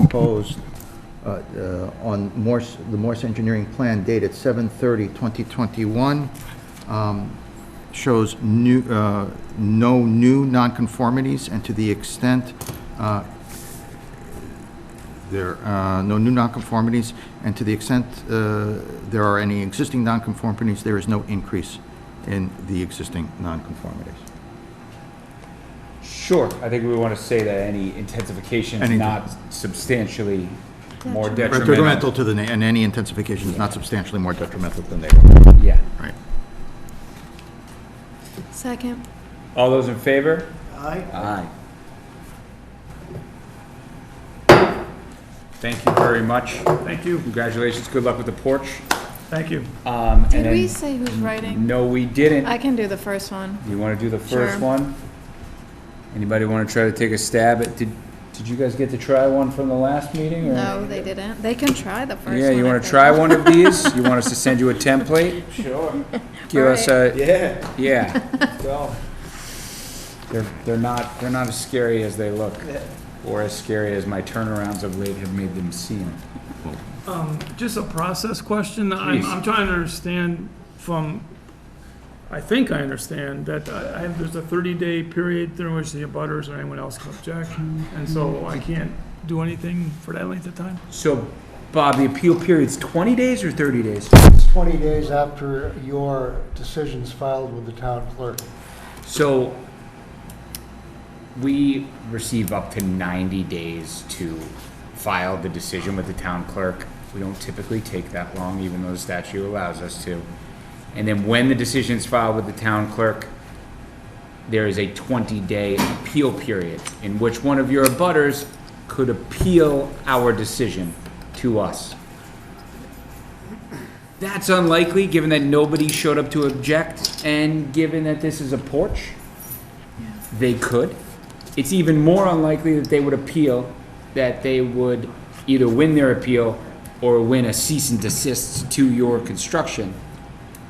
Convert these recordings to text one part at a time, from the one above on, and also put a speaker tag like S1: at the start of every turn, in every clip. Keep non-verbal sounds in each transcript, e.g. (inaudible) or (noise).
S1: proposed uh, uh, on Morse, the Morse Engineering Plan dated 7/30/2021 um, shows new, uh, no new nonconformities, and to the extent uh, there, uh, no new nonconformities, and to the extent uh, there are any existing nonconformities, there is no increase in the existing nonconformities.
S2: Sure, I think we want to say that any intensification is
S1: Any-
S2: not substantially more
S1: Detrimental
S2: detrimental.
S1: to the, na- and any intensification is not substantially more detrimental than neighborhood.
S2: Yeah.
S1: Right.
S3: Second.
S2: All those in favor?
S4: Aye.
S2: Aye. Thank you very much.
S4: Thank you.
S2: Congratulations, good luck with the porch.
S4: Thank you.
S2: Um, and
S3: Did we
S2: then-
S3: say who's writing?
S2: No, we didn't.
S3: I can do the first one.
S2: You want to do the first
S3: Sure.
S2: one? Anybody want to try to take a stab at, did, did you guys get to try one from the last meeting? or-
S3: No, they didn't. They can try the first one.
S2: Yeah, you
S3: I
S2: want to
S3: think.
S2: try one of these? You want us to send you a template?
S4: (laughs) Sure.
S2: Give us a,
S4: Yeah,
S2: yeah.
S4: (laughs) well,
S2: They're, they're not, they're not as scary as they look, or as scary as my turnarounds of late have made them seem.
S5: Um, Just a process question. I'm,
S2: Please.
S5: I'm trying to understand from, I think I understand that I, I have, there's a thirty-day period during which the abutters or anyone else can object. And so I can't do anything for that length of time?
S2: So, Bob, the appeal period's twenty days or thirty days?
S6: 20 days after your decision's filed with the town clerk.
S2: So, we receive up to ninety days to file the decision with the town clerk. We don't typically take that long, even though the statute allows us to. And then when the decision is filed with the town clerk, there is a 20-day appeal period in which one of your abutters could appeal our decision to us. That's unlikely, given that nobody showed up to object, and given that this is a porch, they could. It's even more unlikely that they would appeal, that they would either win their appeal or win a cease and desist to your construction.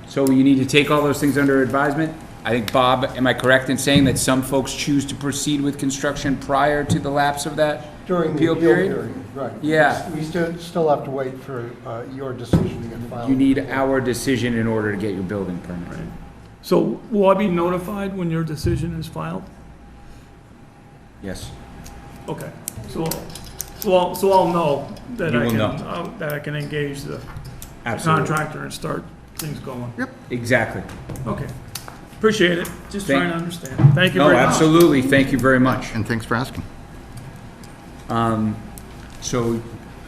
S2: So you need to take all those things under advisement. I think, Bob, am I correct in saying that some folks choose to proceed with construction prior to the lapse of that
S6: During the
S2: appeal period?
S6: Right.
S2: Yeah.
S6: We still, still have to wait for uh, your decision to get filed.
S2: You need our decision in order to get your building permit.
S5: So will I be notified when your decision is filed?
S2: Yes.
S5: Okay, so, so I'll, so I'll know that
S2: You
S5: I
S2: will
S5: can,
S2: know.
S5: uh, that I can engage the
S2: Absolutely.
S5: contractor and start things going.
S2: Exactly.
S5: Okay, appreciate it. Just
S2: Thank-
S5: trying to understand. Thank you
S2: No,
S5: very much.
S2: absolutely. Thank you very much.
S1: And thanks for asking.
S2: Um, so,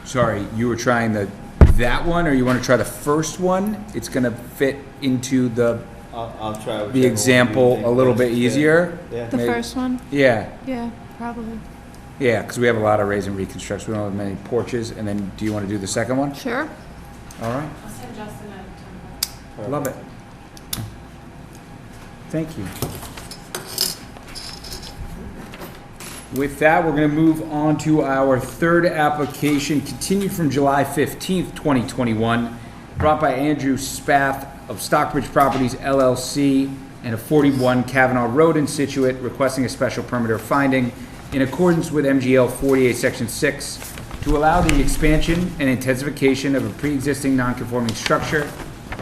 S2: sorry, you were trying the, that one, or you want to try the first one? It's going to fit into the,
S4: I'll, I'll try.
S2: the example a little bit easier?
S4: Yeah.
S3: The
S2: Maybe-
S3: first one?
S2: Yeah,
S3: Yeah, probably.
S2: yeah, because we have a lot of raise and reconstructs. We don't have many porches. And then, do you want to do the second one?
S3: Sure.
S2: All right,
S7: I'll send Justin a template.
S2: love it. Thank you. With that, we're going to move on to our third application, continued from July 15th, 2021, brought by Andrew Spath of Stockbridge Properties LLC and a 41 Kavanaugh Road in Situate, requesting a special permit or finding in accordance with MGL 48, Section 6, to allow the expansion and intensification of a pre-existing non-conforming structure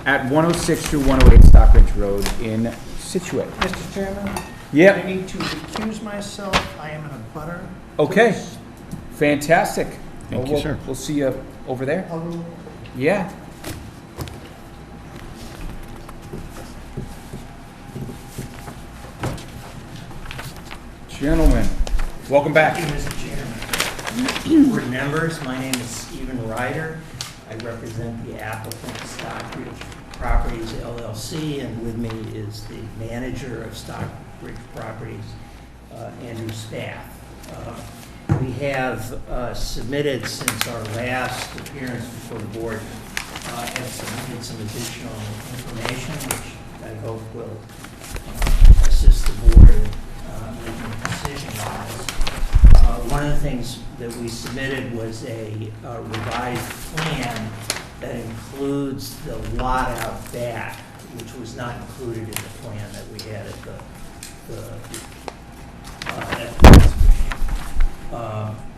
S2: at 106 through 108 Stockbridge Road in Situate.
S8: Mr. Chairman?
S2: Yep.
S8: I need to recuse myself. I am in a butter.
S2: Okay, fantastic. Well,
S1: you,
S2: we'll-
S1: sir.
S2: We'll see you over there. Yeah. Gentlemen, welcome
S8: Thank
S2: back.
S8: you, Mr. Chairman. Board members, my name is Stephen Ryder. I represent the applicant Stockbridge Properties LLC, and with me is the manager of Stockbridge Properties, uh, Andrew Spath. Uh, We have uh, submitted since our last appearance before the board, uh, have submitted some additional information, which I hope will uh, assist the board in uh, making a decision on this. Uh, One of the things that we submitted was a uh, revised plan that includes the lot out back, which was not included in the plan that we had at the, the, uh, at the last meeting. Um,